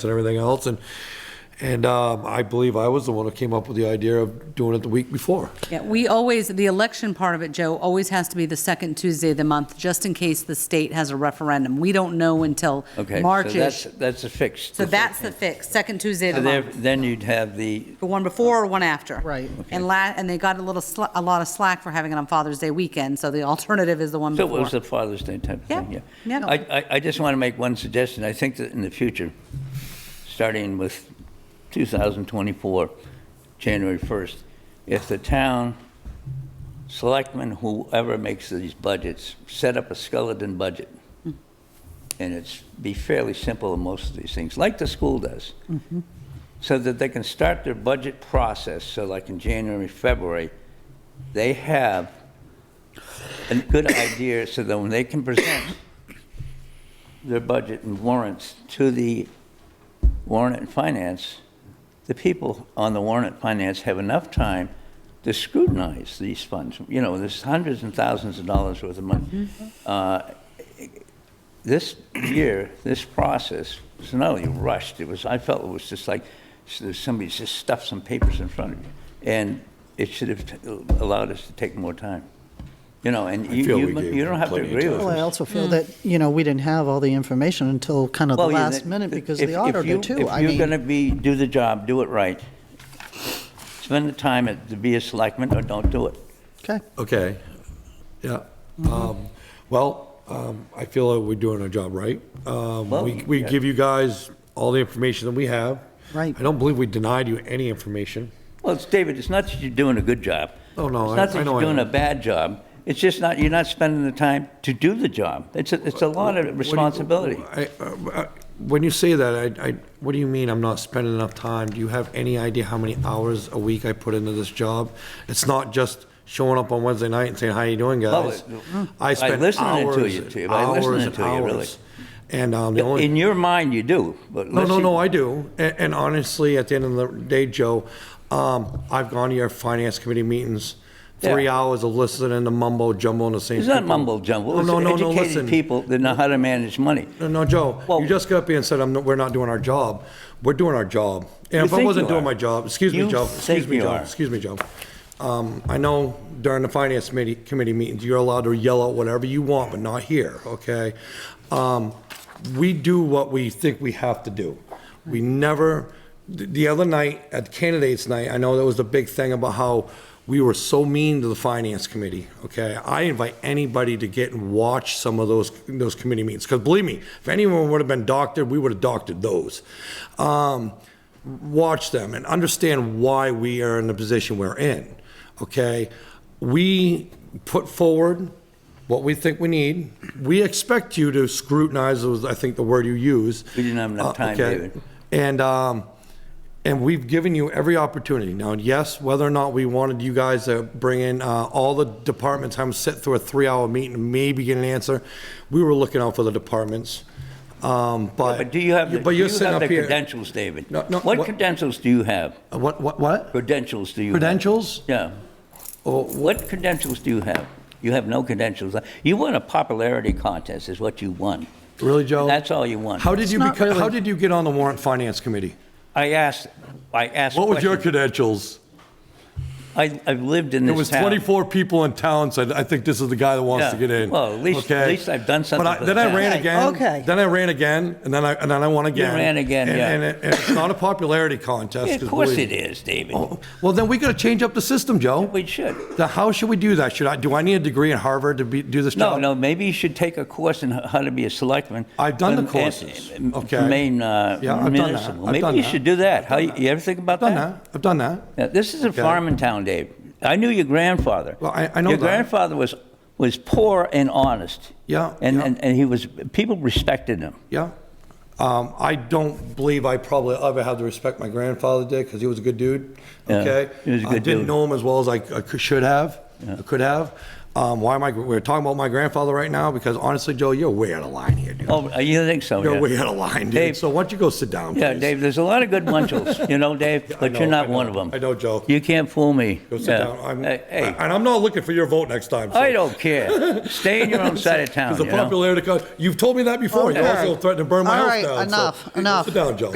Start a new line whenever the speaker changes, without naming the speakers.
and everything else, and, and um, I believe I was the one who came up with the idea of doing it the week before.
Yeah, we always, the election part of it, Joe, always has to be the second Tuesday of the month, just in case the state has a referendum. We don't know until
Okay, so that's,
March-ish.
that's a fix.
So that's the fix, second Tuesday of
So
the
there-
month.
Then you'd have the,
The one before or one after.
Right.
And la, and they got a little, sla- a lot of slack for having it on Father's Day weekend, so the alternative is the one
so
before.
it was the Father's Day type of thing,
Yeah,
yeah.
yeah.
I, I, I just want to make one suggestion. I think that in the future, starting with 2024, January 1st, if the town selectmen, whoever makes these budgets, set up a skeleton budget,
Mm-hmm.
and it's, be fairly simple in most of these things, like the school does.
Mm-hmm.
so that they can start their budget process, so like in January, February, they have a good idea so that when they can present their budget and warrants to the warrant and finance, the people on the warrant and finance have enough time to scrutinize these funds. You know, there's hundreds and thousands of dollars worth of money. Uh, this year, this process was not only rushed, it was, I felt it was just like s- somebody just stuffed some papers in front of you. And it should have t- allowed us to take more time. You know, and you,
feel
you
we
mu-
gave
you don't
them
have to
plenty of
agree with
time.
Well, I
us.
also feel that, you know, we didn't have all the information until kind of the
Well, yeah,
last
that-
minute because
if-
of the
if you-
auditor too. I
If you're going
mean,
to be, do the job, do it right. Spend the time at- to be a selectman or don't do it.
okay,
Okay, yeah. Um, Well, um, I feel like we're doing our job right. Um,
Well,
We, we
yeah.
give you guys all the information that we have.
Right.
I don't believe we denied you any information.
Well, it's, David, it's not that you're doing a good job.
Oh, no, I-
It's not
I
that
know
you're
I
doing a
am.
bad job. It's just not, you're not spending the time to do the job. It's a, it's a lot of responsibility.
I- uh, I- When you say that, I, I, what do you mean I'm not spending enough time? Do you have any idea how many hours a week I put into this job? It's not just showing up on Wednesday night and saying, how you doing,
Well,
guys?
it-
I
by
spend hours,
listening to
hours,
you,
and
too, by listening to you, really.
hours. And um, the only.
In your mind, you do, but.
No,
let's
no,
see-
no, I do. And, and honestly, at the end of the day, Joe, um, I've gone to your finance committee meetings, three
Yeah.
hours of listening to mumbo jumbo and the same.
It's not
people.
mumble jumble.
No, no,
It's
no, no,
educated
listen.
people that know how to manage money.
No, no, Joe,
Well-
you just got up here and said, I'm, not- we're not doing our job. We're doing our job.
You
And if I
think
wasn't
you
doing
are.
my job, excuse me,
You
Joe, excuse
think
me,
you
Joe,
are.
excuse me, Joe. Um, I know during the finance committee, committee meetings, you're allowed to yell out whatever you want, but not here, okay? Um, we do what we think we have to do. We never, the, the other night, at candidates night, I know that was the big thing about how we were so mean to the finance committee, okay? I invite anybody to get and watch some of those, those committee meetings, because believe me, if anyone would have been doctored, we would have doctored those. Um, watch them and understand why we are in the position we're in, okay? We put forward what we think we need. We expect you to scrutinize, was, I think, the word you used.
We didn't have enough
Uh,
time,
okay.
David.
And, um, and we've given you every opportunity. Now, yes, whether or not we wanted you guys to bring in uh, all the departments, I'm sit through a three-hour meeting, and maybe get an answer. We were looking out for the departments, um, but.
But do you have, the-
But
do you
you're sitting
have
up
the
here.
credentials, David?
No, no,
What
what-
credentials do you have?
Uh, What, what, what?
Credentials do you have?
Credentials?
Yeah. What credentials do you have? You have no credentials. You won a popularity contest is what you won.
Really, Joe?
That's all you won.
How did you
not
become,
really-
how did you get on the warrant finance committee?
I asked, I asked.
What was your
questions.
credentials?
I, I've lived in
There
this
was
town.
24 people in town said, I think this is the guy that wants to
Yeah.
get in.
Well, at least- at
Okay?
least I've done something
But I-
for the
then I
town.
ran
Okay,
again.
okay.
Then I ran again, and then I, and then I won again.
ran again,
And-
yeah.
And it- and it's not a popularity contest.
Yeah, Of
'cause
course
believe
it
me.
is, David.
Well, then we gotta change up the system, Joe.
We should.
Then how should we do that? Should I, do I need a degree in Harvard to be, do this
No,
job?
no, maybe you should take a course in h- how to be a selectman. Um,
I've done the
And- and-
courses,
and
okay.
Maine uh,
Yeah, I've done that.
municipal.
I've done
Maybe you
that.
should do that.
I've
How,
done
you
that.
you ever think about
I've done that, I've done that.
Now, this is a farming town, Dave. I knew your grandfather.
Well, I- I know
Your
that.
grandfather was, was poor and honest.
Yeah,
And,
yeah.
and, and he was, people respected him.
Yeah. Um, I don't believe I probably ever had the respect my grandfather did because he was a good dude.
Yeah,
Okay.
he was a
I
good
didn't
dude.
know him as well as I, I could, should have, I could have. Um, why am I, we're talking about my grandfather right now because honestly, Joe, you're way out of line here, dude.
Oh, you think so?
You're
yeah.
way out of line, dude.
Dave-
so why don't you go sit down?
Yeah,
please?
Dave, there's a lot of good munchels, you know, Dave, but
know,
you're
I
not
know.
one of them.
I know, Joe.
You can't fool me.
Go sit
Yeah.
down. I'm,
Hey, hey,
And I'm not looking for your vote next time. so-
I don't care. Stay in your own side of town,
Because the
you know?
popularity, co- you've told me that before. You
Okay.
also threatened to burn my
All
house
right,
down. so-
enough,
Go
enough.
Sit down, Joe.